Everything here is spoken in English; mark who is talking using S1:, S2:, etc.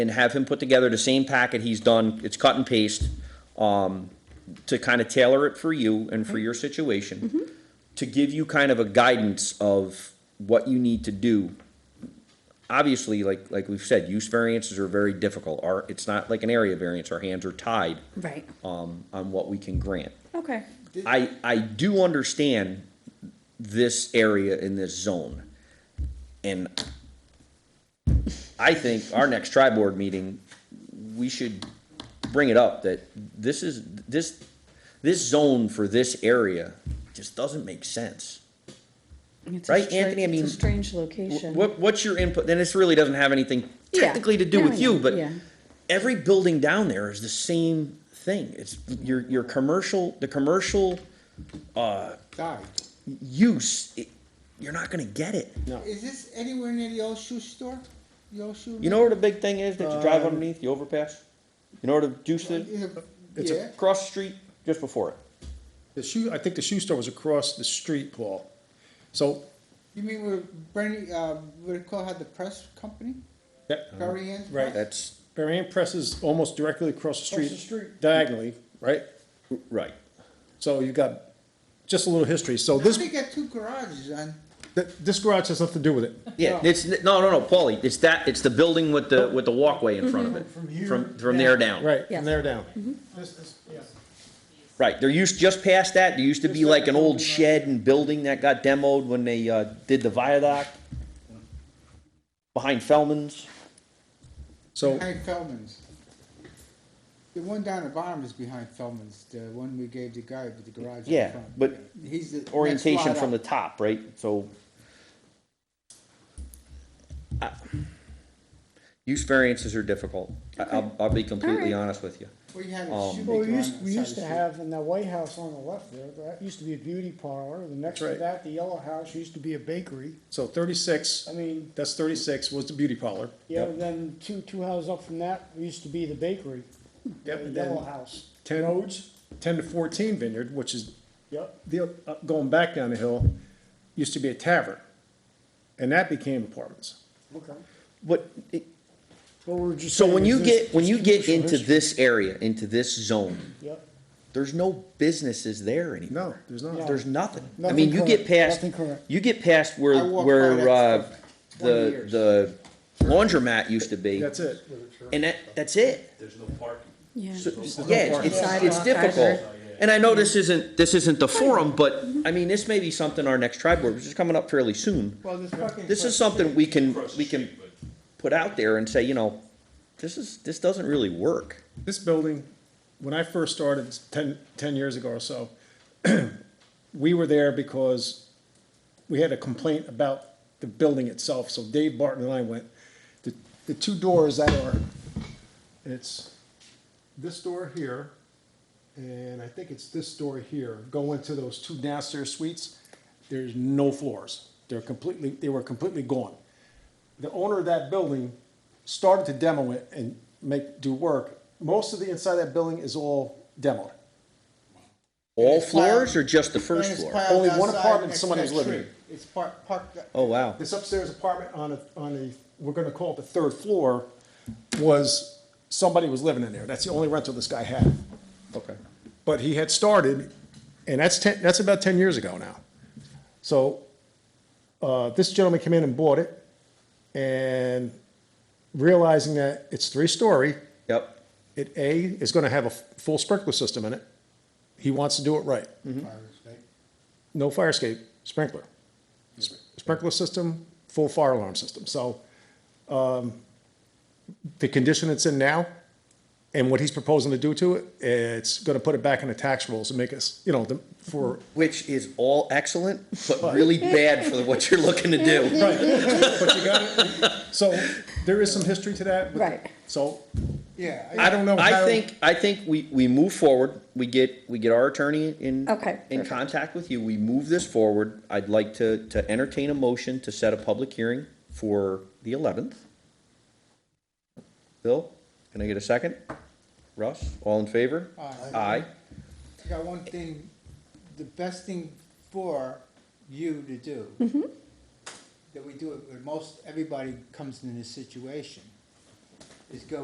S1: and have him put together the same packet he's done, it's cut and paste, um, to kind of tailor it for you and for your situation, to give you kind of a guidance of what you need to do. Obviously, like, like we've said, use variances are very difficult, our, it's not like an area variance, our hands are tied,
S2: Right.
S1: um, on what we can grant.
S2: Okay.
S1: I, I do understand this area in this zone. And I think our next tri board meeting, we should bring it up that this is, this, this zone for this area just doesn't make sense.
S2: It's a
S1: Right,
S2: stra-
S1: Anthony, I
S2: it's
S1: mean,
S2: a strange location.
S1: What, what's your input? And this really doesn't have anything
S2: Yeah.
S1: technically to do
S2: No,
S1: with
S2: I know.
S1: you, but
S2: Yeah.
S1: every building down there is the same thing. It's your, your commercial, the commercial
S3: Sorry.
S1: use, it, you're not gonna get it.
S3: Is this anywhere near the old shoe store? The old shoe?
S1: You know where the big thing is that you drive underneath the overpass? You know where the juice is?
S3: Is it-
S4: It's a-
S3: Yeah,
S1: Cross the street, just before it.
S4: The shoe, I think the shoe store was across the street, Paul. So,
S3: you mean where Bernie, uh, what it called, had the press company?
S4: that,
S3: Bernie Ann's
S4: Uh-huh. Right.
S3: press?
S1: That's
S4: Barry Ann Press is almost directly across the
S3: Across
S4: street.
S3: the street.
S4: Diagonally, right?
S1: right.
S4: So you got just a little history. So
S3: How
S4: this,
S3: they got two garages on?
S4: th- this garage has nothing to do with it.
S1: Yeah, it's no, no, no, Paulie. It's that. It's the building with the with the walkway in front of it.
S5: From here
S1: from from there down.
S4: Right,
S2: Yes.
S4: from there down.
S3: Mm-hmm.
S5: This, this, yes.
S1: Right. There used just past that. There used to be
S3: Just
S1: like
S3: that
S1: an old
S3: building, right.
S1: shed and building that got demoed when they uh, did the viaduct behind Fellman's.
S4: So,
S3: Behind Feldman's. The one down the bottom is behind Feldman's, the one we gave the guy with the garage in
S1: Yeah,
S3: front.
S1: but
S3: He's the next
S1: orientation
S3: lot
S1: from the
S3: up.
S1: top, right? So. I- Use variances are difficult. I- I'll, I'll be completely
S2: Alright.
S1: honest with you.
S3: We had a
S4: Oh,
S1: Um,
S3: shoemaker
S5: Well,
S3: on
S5: we
S3: the
S5: used, we
S3: side of
S5: used
S3: the street.
S5: to have in that White House on the left there, that used to be a beauty parlor, the next to
S4: Right.
S5: that, the yellow house used to be a bakery.
S4: so thirty-six,
S5: I mean,
S4: that's thirty-six was the beauty parlor.
S5: yeah, and then two, two houses up from that used to be the bakery,
S4: Yep,
S5: the
S4: and
S5: yellow
S4: then
S5: house.
S4: ten, ten to fourteen Vineyard, which is
S5: Yep,
S4: the, uh, going back down the hill, used to be a tavern. And that became apartments.
S5: okay.
S1: What, it-
S5: But we're just.
S1: So
S5: saying
S1: when
S5: is
S1: you
S5: this-
S1: get, when you get
S5: commercial
S1: into
S5: history.
S1: this area, into this zone,
S5: Yep,
S1: there's no businesses there anymore.
S4: No, there's not.
S5: No.
S1: There's nothing. I
S5: Nothing
S1: mean, you get
S5: current,
S1: past,
S5: nothing current.
S1: you get past
S3: I
S1: where,
S3: walked by
S1: where,
S3: that
S1: uh,
S3: for 20
S1: the,
S3: years.
S1: the laundromat used to be.
S4: That's it.
S1: And that, that's it.
S6: There's no parking.
S2: Yeah.
S1: So- Yeah, it's, it's- it's
S2: Sidewalk,
S1: difficult.
S2: guardrail.
S1: And I know this isn't, this isn't the forum, but, I mean, this may be something our next tri board, which is coming up fairly soon.
S3: Well, this fucking.
S1: This is something we can, we can put out there and say, you know, this is, this doesn't really work.
S4: This building, when I first started 10 10 years ago or so, we were there because we had a complaint about the building itself, so Dave Barton and I went. The, the two doors that are, it's this door here, and I think it's this door here, go into those two downstairs suites, there's no floors. They're completely, they were completely gone the owner of that building started to demo it and make, do work. Most of the inside of that building is all demoed.
S1: All floors or just the first floor?
S4: Only one apartment someone was living
S3: It's parked, parked,
S1: Oh, wow.
S4: This upstairs apartment on a, on a, we're gonna call it the third floor, was, somebody was living in there. That's the only rental this guy had.
S1: Okay.
S4: But he had started, and that's ten, that's about ten years ago now. So, uh, this gentleman came in and bought it, and realizing that it's three-story,
S1: Yep.
S4: it A is going to have a f- full sprinkler system in it. He wants to do it right.
S1: Mm-hmm.
S4: No fire escape, sprinkler. S- Sprinkler system, full fire alarm system. So um, the condition it's in now and what he's proposing to do to it, it's going to put it back in the tax rules and make us, you know, the- for,
S1: Which is all excellent, but really bad for what you're looking to do.
S4: but you got it. So there is some history to that. but-
S2: Right.
S4: So
S3: yeah.
S4: I don't know
S1: I
S4: how-
S1: think, I think we, we move forward, we get, we get our attorney in.
S2: Okay,
S1: In
S2: perfect.
S1: contact with you, we move this forward. I'd like to, to entertain a motion to set a public hearing for the eleventh. Bill, can I get a second? Russ, all in favor?
S3: Aye.
S1: Aye.
S3: I got one thing, the best thing for you to do. That we do it, where most, everybody comes in this situation, is go